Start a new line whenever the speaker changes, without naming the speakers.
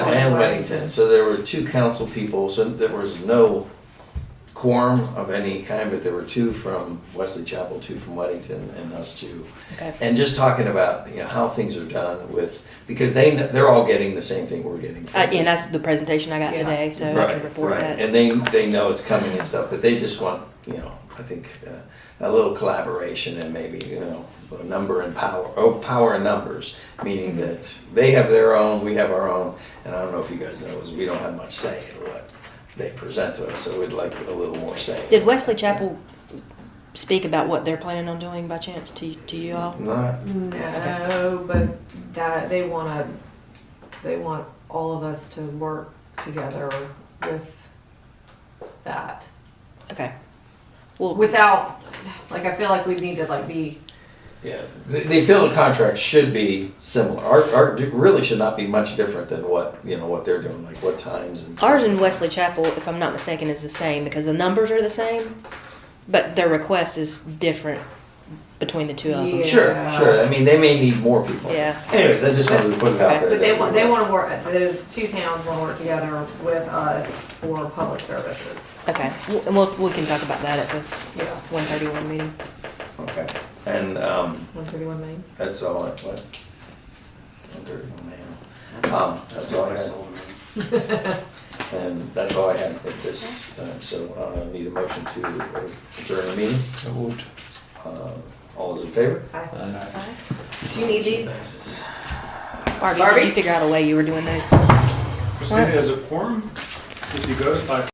Bennington, so there were two council people, so there was no quorum of any kind, but there were two from Wesley Chapel, two from Weddington, and us two.
Okay.
And just talking about, you know, how things are done with, because they, kn- they're all getting the same thing we're getting.
Uh, and that's the presentation I got
Yeah.
today, so I
Right,
can report
right.
that.
And they, they know it's coming and stuff, but they just want, you know, I think, uh, a little collaboration and maybe, you know, a number and power, oh, power and numbers, meaning that they have their own, we have our own, and I don't know if you guys know, is we don't have much say in what they present to us, so we'd like a little more say.
Did Wesley Chapel speak about what they're planning on doing by chance to to you all?
Not,
No, but that, they wanna, they want all of us to work together with that.
Okay. Well,
Without, like, I feel like we need to like be,
yeah, they, they feel the contract should be similar, our, our, really should not be much different than what, you know, what they're doing, like what times and stuff.
ours in Wesley Chapel, if I'm not mistaken, is the same because the numbers are the same, but their request is different between the two of them.
Yeah.
Sure, sure. I mean, they may need more people.
Yeah.
Anyways, I just wanted to put it out there.
but they
that-
want, they wanna work, those two towns wanna work together with us for public services.
Okay. Well, and we'll, we can talk about that at the
Yeah,
131 meeting.
Okay. And, um,
one thirty-one Main.
that's all I, what? Under- man. Um, that's all I had. And that's all I had at this time, so uh, I need a motion to adjourn the meeting.
So moved.
Uh, All those in favor?
Hi.
Aye.
Uh,
Do you need these?
Passes.
Barbie, did
Barbie?
you figure out a way you were doing those?
Christina, is it quorum if you go by